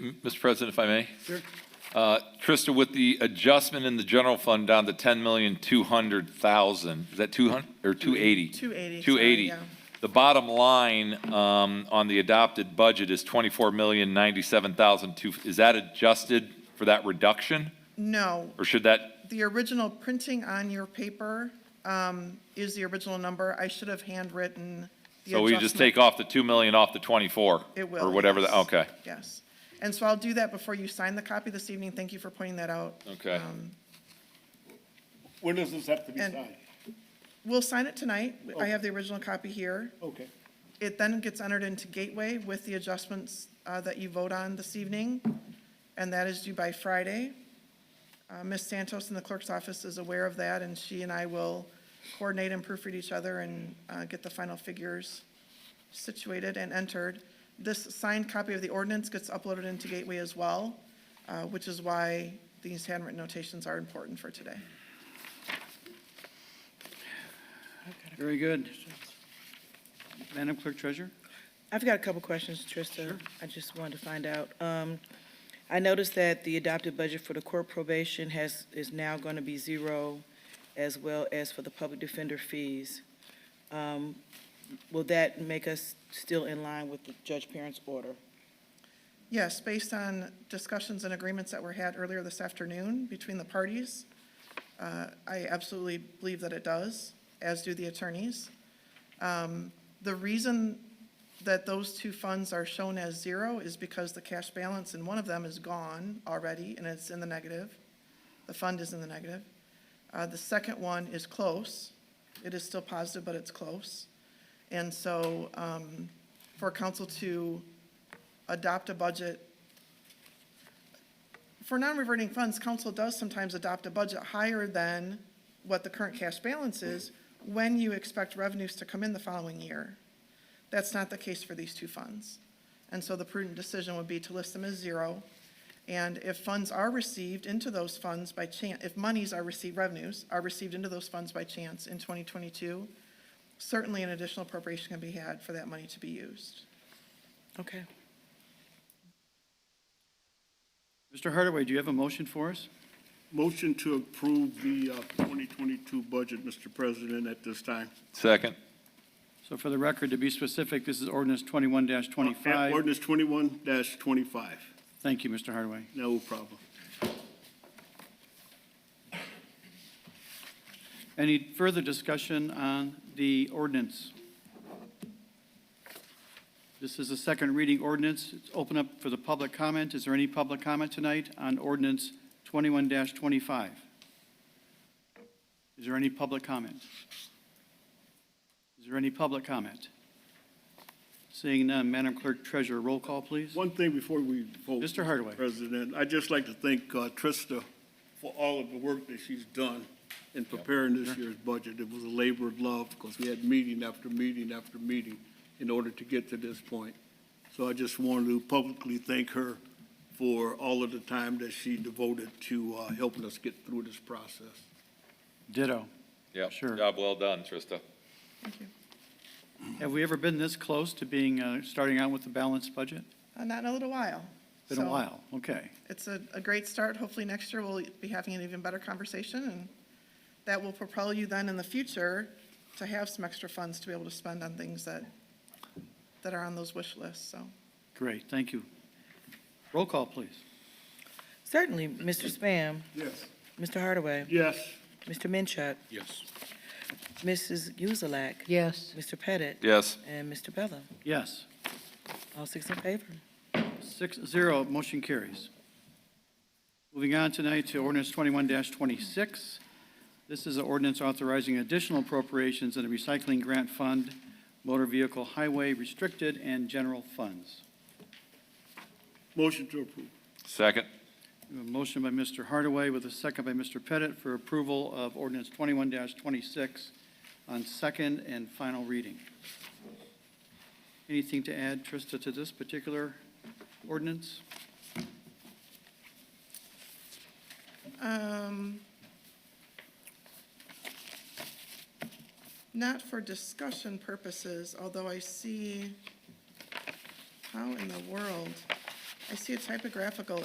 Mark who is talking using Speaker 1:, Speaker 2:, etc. Speaker 1: Mr. President, if I may? Sure. Trista, with the adjustment in the general fund down to 10,200,000, is that 200, or 280?
Speaker 2: 280, sorry,
Speaker 1: 280.
Speaker 2: yeah.
Speaker 1: The bottom line um, on the adopted budget is 24,097,002. Is that adjusted for that reduction?
Speaker 2: No,
Speaker 1: Or should that,
Speaker 2: the original printing on your paper um, is the original number. I should have handwritten the
Speaker 1: so we just
Speaker 2: adjustment.
Speaker 1: take off the 2 million off the 24?
Speaker 2: It will.
Speaker 1: Or whatever, the-
Speaker 2: yes,
Speaker 1: okay.
Speaker 2: Yes. And so I'll do that before you sign the copy this evening. Thank you for pointing that out.
Speaker 1: Okay.
Speaker 2: Um,
Speaker 3: When does this have to be
Speaker 2: And-
Speaker 3: signed?
Speaker 2: We'll sign it tonight.
Speaker 1: Oh.
Speaker 2: I have the original copy here.
Speaker 3: Okay.
Speaker 2: It then gets entered into Gateway with the adjustments uh, that you vote on this evening, and that is due by Friday. Uh, Ms. Santos in the clerk's office is aware of that, and she and I will coordinate and proofread each other and uh, get the final figures situated and entered. This signed copy of the ordinance gets uploaded into Gateway as well, uh, which is why these handwritten notations are important for today.
Speaker 4: Very good. Madam Clerk Treasurer?
Speaker 5: I've got a couple questions, Trista. I just wanted to find out. Um, I noticed that the adopted budget for the court probation has, is now going to be zero, as well as for the public defender fees. Um, Will that make us still in line with the Judge Parent's order?
Speaker 2: Yes, based on discussions and agreements that were had earlier this afternoon between the parties, uh, I absolutely believe that it does, as do the attorneys. Um, The reason that those two funds are shown as zero is because the cash balance in one of them is gone already, and it's in the negative. The fund is in the negative. Uh, The second one is close. It is still positive, but it's close. And so um, for council to adopt a budget. For non-reverting funds, council does sometimes adopt a budget higher than what the current cash balance is when you expect revenues to come in the following year. That's not the case for these two funds. And so the prudent decision would be to list them as zero. And if funds are received into those funds by chance, if monies are received, revenues are received into those funds by chance in 2022, certainly an additional appropriation can be had for that money to be used.
Speaker 5: Okay.
Speaker 4: Mr. Hardaway, do you have a motion for us?
Speaker 3: Motion to approve the uh, 2022 budget, Mr. President, at this time.
Speaker 1: Second?
Speaker 4: So for the record, to be specific, this is ordinance twenty-one
Speaker 3: At
Speaker 4: twenty-five.
Speaker 3: Ordinance 21-25.
Speaker 4: Thank you, Mr. Hardaway.
Speaker 3: No problem.
Speaker 4: Any further discussion on the ordinance? This is a second reading ordinance. It's open up for the public comment. Is there any public comment tonight on ordinance twenty-one twenty-five? Is there any public comment? Is there any public comment? Seeing none, Madam Clerk Treasurer, roll call, please.
Speaker 3: One thing before we vote.
Speaker 4: Mr. Hardaway.
Speaker 3: President, I'd just like to thank uh, Trista for all of the work that she's done in preparing this year's budget. It was a labor of love because we had meeting after meeting after meeting in order to get to this point. So I just wanted to publicly thank her for all of the time that she devoted to uh, helping us get through this process.
Speaker 4: Ditto.
Speaker 1: Yeah.
Speaker 4: Sure.
Speaker 1: Job well done, Trista.
Speaker 2: Thank you.
Speaker 4: Have we ever been this close to being, uh, starting out with a balanced budget?
Speaker 2: Uh, Not in a little while.
Speaker 4: Been a
Speaker 2: So
Speaker 4: while, okay.
Speaker 2: It's a, a great start. Hopefully next year we'll be having an even better conversation and that will propel you then in the future to have some extra funds to be able to spend on things that, that are on those wish lists, so.
Speaker 4: Great, thank you. Roll call, please.
Speaker 5: Certainly, Mr. Spam,
Speaker 3: Yes.
Speaker 5: Mr. Hardaway,
Speaker 3: Yes.
Speaker 5: Mr. Minchuk,
Speaker 3: Yes.
Speaker 5: Mrs. Uzelak,
Speaker 6: Yes.
Speaker 5: Mr. Pettit,
Speaker 1: Yes.
Speaker 5: and Mr. Bella.
Speaker 4: Yes,
Speaker 5: All six in favor.
Speaker 4: six zero, motion carries. Moving on tonight to ordinance twenty-one twenty-six. This is an ordinance authorizing additional appropriations in the recycling grant fund, motor vehicle highway restricted, and general funds.
Speaker 3: Motion to approve.
Speaker 1: Second?
Speaker 4: We have A motion by Mr. Hardaway with a second by Mr. Pettit for approval of ordinance twenty-one twenty-six on second and final reading. Anything to add, Trista, to this particular ordinance?
Speaker 2: Um, Not for discussion purposes, although I see, how in the world? I see a typographical